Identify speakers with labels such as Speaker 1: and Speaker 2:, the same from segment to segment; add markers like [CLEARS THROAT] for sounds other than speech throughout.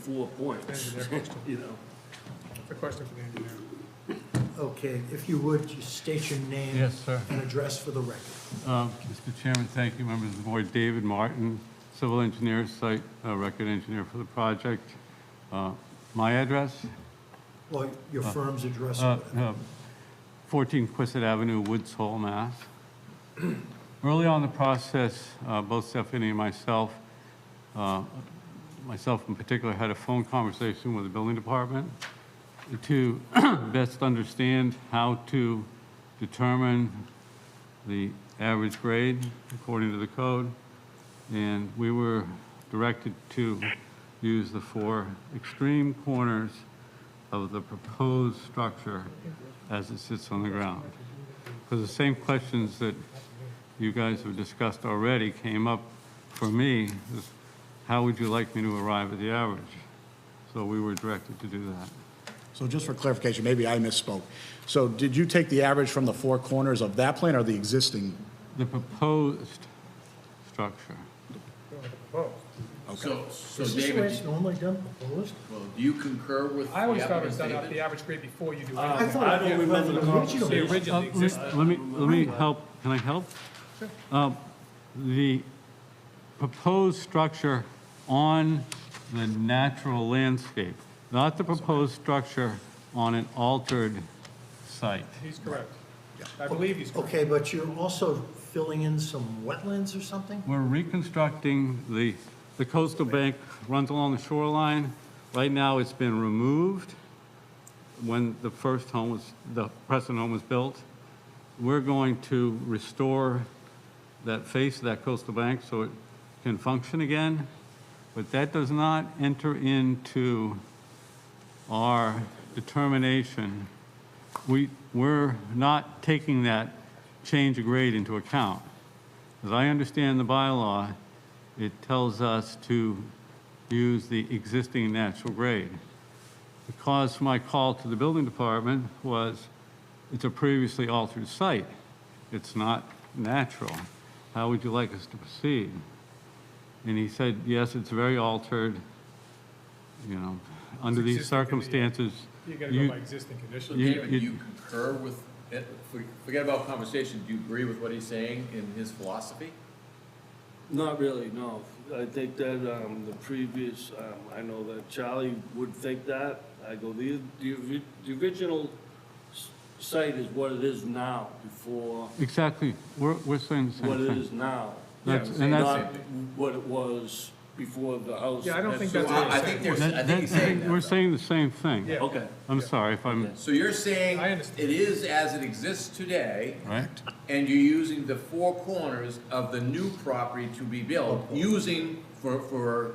Speaker 1: four points,
Speaker 2: [LAUGHS]
Speaker 1: you know.
Speaker 3: It's a question for the engineer.
Speaker 4: Okay, if you would, just state your name.
Speaker 5: Yes, sir.
Speaker 4: And address for the record.
Speaker 5: Um, Mr. Chairman, thank you, members of the board. David Martin, civil engineer, site uh, record engineer for the project. Uh, My address,
Speaker 4: Well, your firm's address.
Speaker 5: uh,
Speaker 4: or whatever.
Speaker 5: uh, 14 Quistit Avenue, Woods Hole, Mass. [CLEARS THROAT] Early on in the process, uh, both Stephanie and myself, uh, myself in particular, had a phone conversation with the building department to [COUGHS] best understand how to determine the average grade according to the code, and we were directed to use the four extreme corners of the proposed structure as it sits on the ground. Because the same questions that you guys have discussed already came up for me, is how would you like me to arrive at the average? So we were directed to do that.
Speaker 6: So just for clarification, maybe I misspoke. So did you take the average from the four corners of that plan or the existing?
Speaker 5: The proposed structure.
Speaker 1: So, so
Speaker 4: Is this the way
Speaker 1: David,
Speaker 4: it's normally done, proposed?
Speaker 3: Um,
Speaker 1: well, do you concur with the
Speaker 3: I always thought it was
Speaker 1: applicant's
Speaker 3: done off the
Speaker 1: statement?
Speaker 3: average grade before you do
Speaker 4: I
Speaker 3: anything.
Speaker 4: thought it was the original.
Speaker 3: The original
Speaker 5: Uh,
Speaker 3: existing.
Speaker 5: Let me, let me help, can I help? Um, The proposed structure on the natural landscape, not the proposed structure on an altered site.
Speaker 3: He's correct. I believe he's correct.
Speaker 4: Okay, but you're also filling in some wetlands or something?
Speaker 5: We're reconstructing the, the coastal bank runs along the shoreline. Right now, it's been removed when the first home was, the present home was built. We're going to restore that face of that coastal bank so it can function again, but that does not enter into our determination. We, we're not taking that change of grade into account. As I understand the bylaw, it tells us to use the existing natural grade. The cause for my call to the building department was, it's a previously altered site. It's not natural. How would you like us to proceed? And he said, yes, it's very altered, you know, under these
Speaker 3: existing condition.
Speaker 5: circumstances.
Speaker 3: uh, You gotta go by existing
Speaker 1: So
Speaker 3: conditions.
Speaker 5: you-
Speaker 1: David, do
Speaker 5: you-
Speaker 1: you concur with, it? For- forget about conversation, do you agree with what he's saying in his philosophy?
Speaker 2: Not really, no. I think that um, the previous, um, I know that Charlie would think that. I go, the, the ori- the original s- site is what it is now, before
Speaker 5: Exactly. We're, we're saying the same
Speaker 2: what
Speaker 5: thing.
Speaker 2: it is
Speaker 5: [LAUGHS]
Speaker 2: now.
Speaker 5: That's-
Speaker 3: Yeah,
Speaker 5: and that's-
Speaker 1: same
Speaker 2: Not what it was before the house.
Speaker 3: Yeah, I don't think
Speaker 1: So
Speaker 3: That's what he's
Speaker 1: I I think
Speaker 3: saying.
Speaker 1: there's, I
Speaker 5: That-
Speaker 1: think he's
Speaker 5: that-
Speaker 1: saying that.
Speaker 5: We're
Speaker 1: though.
Speaker 5: saying the same thing.
Speaker 3: Yeah.
Speaker 2: Okay,
Speaker 5: I'm sorry if I'm,
Speaker 1: So you're saying
Speaker 3: I understand.
Speaker 1: it is as it exists today,
Speaker 5: right?
Speaker 1: and you're using the four corners of the new property to be built, using for, for,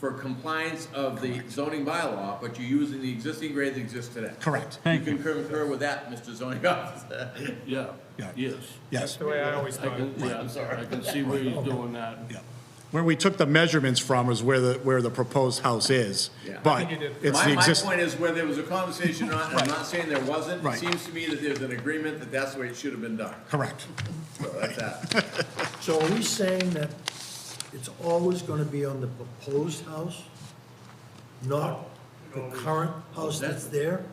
Speaker 1: for compliance of the zoning bylaw, but you're using the existing grade that exists today.
Speaker 6: Correct.
Speaker 5: Thank
Speaker 1: You
Speaker 5: you.
Speaker 1: can concur with that, Mr. Zoning [LAUGHS] Officer.
Speaker 2: yeah,
Speaker 6: Yeah.
Speaker 2: yes.
Speaker 3: That's
Speaker 6: Yes.
Speaker 3: the way I always
Speaker 2: I
Speaker 3: thought.
Speaker 2: can, yeah, I'm sorry, I can see where
Speaker 3: [LAUGHS]
Speaker 2: you're doing that.
Speaker 6: Yeah. Where we took the measurements from is where the, where the proposed house is.
Speaker 1: Yeah.
Speaker 3: I
Speaker 6: But
Speaker 3: think you did.
Speaker 6: it's
Speaker 1: My,
Speaker 6: the
Speaker 1: my
Speaker 6: existing,
Speaker 1: point is where there was a conversation, or not, and I'm not saying there wasn't, it
Speaker 6: Right.
Speaker 1: seems to me that there's an agreement that that's the way it should have been done.
Speaker 6: correct.
Speaker 1: So that's that.
Speaker 4: So are we saying that it's always going to be on the proposed house, not the current house that's there?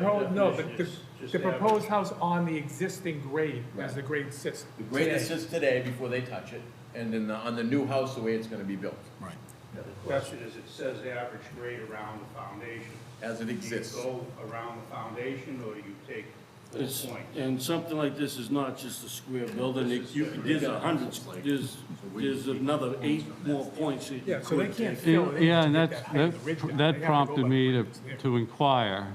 Speaker 3: No, no, the, the- the proposed house on the existing grade, as the grade sits.
Speaker 1: [LAUGHS] The grade that sits today before they touch it, and then the- on the new house, the way it's gonna be built,
Speaker 6: Right.
Speaker 7: Now, The question is, it says the average grade around the foundation.
Speaker 1: as it exists.
Speaker 7: Do you go around the foundation, or you take
Speaker 2: It's-
Speaker 7: full point?
Speaker 2: And something like this is not just a square building, it- you, there's a hundred, there's, there's another eight more points that you
Speaker 3: Yeah, so they
Speaker 2: could
Speaker 3: can't
Speaker 2: take.
Speaker 3: fill it. in
Speaker 5: Yeah,
Speaker 3: to
Speaker 5: and
Speaker 3: get
Speaker 5: that's,
Speaker 3: height of the ridge
Speaker 5: that
Speaker 3: down. They have
Speaker 5: that
Speaker 3: go
Speaker 5: prompted
Speaker 3: by
Speaker 5: me
Speaker 3: the
Speaker 5: to,
Speaker 3: grades there.
Speaker 5: to inquire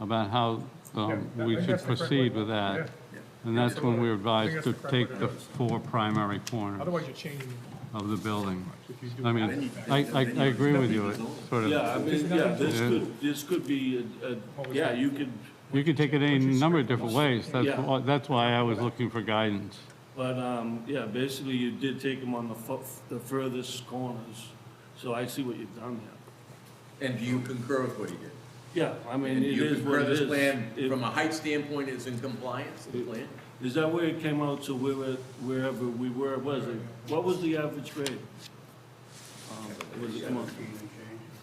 Speaker 5: about how um,
Speaker 3: Yeah, I
Speaker 5: we
Speaker 3: think
Speaker 5: should
Speaker 3: that's the correct
Speaker 5: proceed
Speaker 3: way.
Speaker 5: with
Speaker 3: Yeah.
Speaker 5: that. And that's when we were advised
Speaker 3: that's
Speaker 5: to
Speaker 3: the correct
Speaker 5: take
Speaker 3: way to
Speaker 5: the
Speaker 3: do it.
Speaker 5: four primary corners
Speaker 3: Otherwise you're changing,
Speaker 5: of the building.
Speaker 3: if you do.
Speaker 5: I mean, I, I, I agree with you, it's sort of.
Speaker 2: Yeah, I mean, yeah, this could, this could be, a- a- yeah, you could,
Speaker 5: You could take it any number of different ways. That's,
Speaker 2: Yeah.
Speaker 5: why- that's why I was looking for guidance.
Speaker 2: but, um, yeah, basically you did take them on the fu- the furthest corners, so I see what you've done there.
Speaker 1: And do you concur with what he did?
Speaker 2: Yeah, I mean,
Speaker 1: And
Speaker 2: it
Speaker 1: you
Speaker 2: is
Speaker 1: concur
Speaker 2: what it is.
Speaker 1: this plan,
Speaker 2: It-
Speaker 1: from a height standpoint, is in compliance, the plan?
Speaker 2: Is that where it came out to where, wherever we were, was it, what was the average grade? Um, Was it, come on,